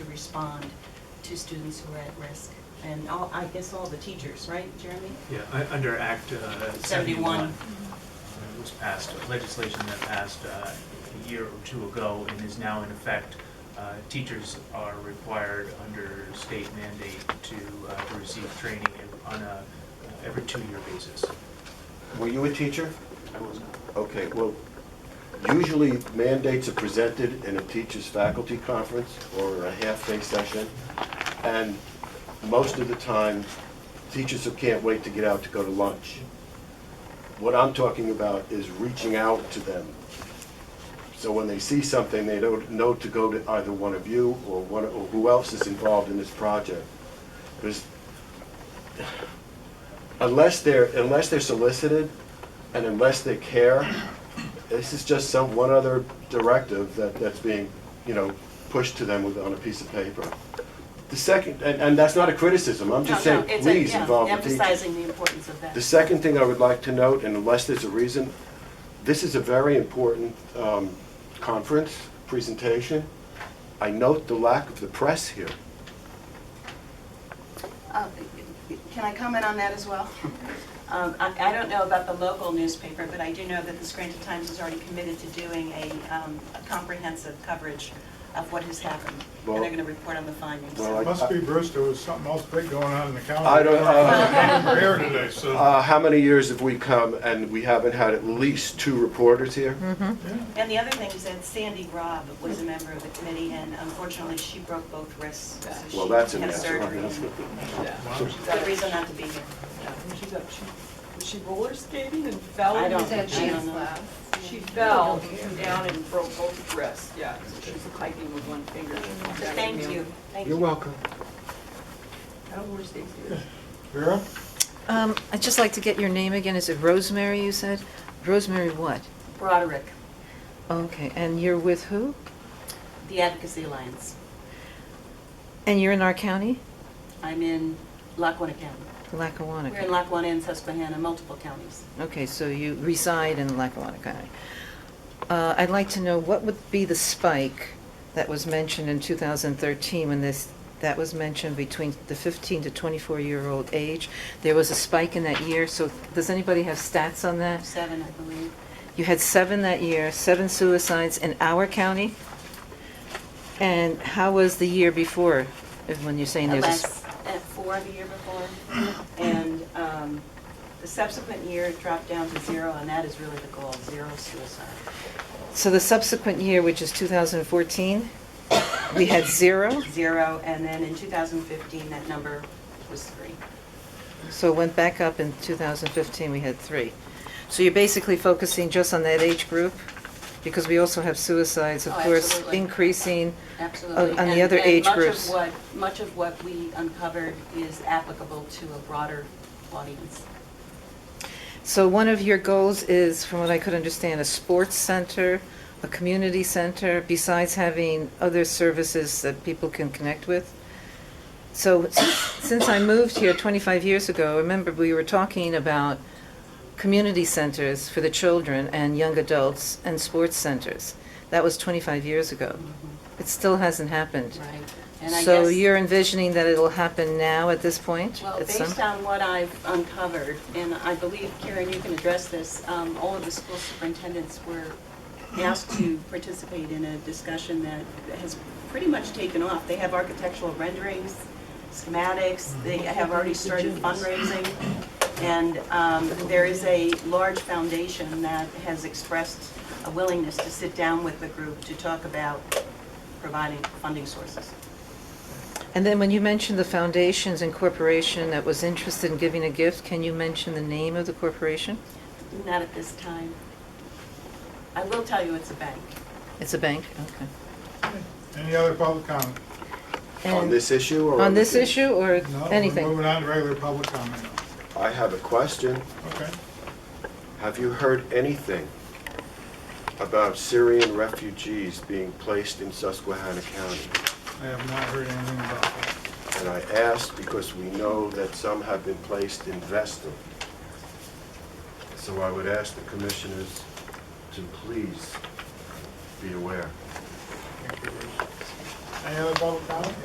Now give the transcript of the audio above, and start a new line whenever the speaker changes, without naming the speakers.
respond to students who are at risk. And all, I guess all the teachers, right, Jeremy?
Yeah, u- under Act uh, 71.
71.
uh, Which passed, legislation that passed uh, a year or two ago and is now in effect. Uh, Teachers are required under state mandate to uh, to receive training ev- on a, uh, every two-year basis.
Were you a teacher?
I was not.
Okay, well, usually mandates are presented in a teacher's faculty conference or a half-day session, and most of the time, teachers who can't wait to get out to go to lunch. What I'm talking about is reaching out to them. So when they see something, they don't know to go to either one of you or one, or who else is involved in this project. Because unless they're, unless they're solicited and unless they care, this is just some, one other directive that, that's being, you know, pushed to them with, on a piece of paper. The second, and, and that's not a criticism, I'm just
No,
saying,
no, it's a-
please
yeah,
involve the teachers.
Emphasizing the importance of
The
that.
second thing I would like to note, and unless there's a reason, this is a very important um, conference, presentation. I note the lack of the press here.
Uh, Can I comment on that as well? Um, I I don't know about the local newspaper, but I do know that the Scranton Times is already committed to doing a um, a comprehensive coverage of what has happened. And
Well-
they're going to report on the findings.
Well, I-
Must be Bruce, there was something else big going on in the county.
I don't-
I came Here today, so.
Uh, How many years have we come and we haven't had at least two reporters here?
Mm-hmm.
yeah.
And the other thing is that Sandy Robb was a member of the committee, and unfortunately, she broke both wrists. so
Well,
she
that's a
had
mess.
surgery. Good reason not to be here.
She's up, she, was she roller skating and fell?
I don't-
Said
I
she
don't know.
She fell down and broke both wrists, yeah, so she's hiking with one finger.
Thank you, thank you.
You're welcome.
I don't roller skate either.
Vera?
Um, I'd just like to get your name again. Is it Rosemary, you said? Rosemary what?
Broderick,
Okay, and you're with who?
the Advocacy Alliance.
And you're in our county?
I'm in Lackawanna County. We're in
Lackawanna.
Lackawanna and Susquehanna, multiple counties.
Okay, so you reside in Lackawanna County. Uh, I'd like to know what would be the spike that was mentioned in 2013 when this, that was mentioned between the 15 to 24-year-old age? There was a spike in that year, so does anybody have stats on that?
Seven, I believe.
You had seven that year, seven suicides in our county? And how was the year before, if- when you're saying there's a... sp-
Less at four the year before. And um, the subsequent year it dropped down to zero, and that is really the goal, zero suicide.
So the subsequent year, which is 2014, we had zero,
Zero, and then in 2015, that number was three.
so it went back up in 2015, we had three. So you're basically focusing just on that age group? Because we also have suicides, of
Oh,
course,
absolutely.
increasing.
Absolutely.
on the
And-
other
and
age
much of
groups.
what- Much of what we uncovered is applicable to a broader audience.
So one of your goals is, from what I could understand, a sports center, a community center, besides having other services that people can connect with? So since since I moved here 25 years ago, remember, we were talking about community centers for the children and young adults and sports centers. That was 25 years ago. It still hasn't happened.
Mm-hmm. Right. And I
So
guess-
you're envisioning that it'll happen now at this point?
Well,
at some-
based on what I've uncovered, and I believe, Karen, you can address this, um, all of the school superintendents were asked to participate in a discussion that has pretty much taken off. They have architectural renderings, schematics, they have already started fundraising, and um, there is a large foundation that has expressed a willingness to sit down with the group to talk about providing funding sources.
And then when you mentioned the foundations and corporation that was interested in giving a gift, can you mention the name of the corporation?
Not at this time. I will tell you it's a bank.
It's a bank, okay.
Any other public comment?
On
And-
this issue or?
On
other
this
things?
issue or
No, we're
anything?
moving on to regular public comment.
I have a question.
Okay.
Have you heard anything about Syrian refugees being placed in Susquehanna County?
I have not heard anything about that.
And I ask because we know that some have been placed in Vestal. So I would ask the commissioners to please be aware.
Any other public comment?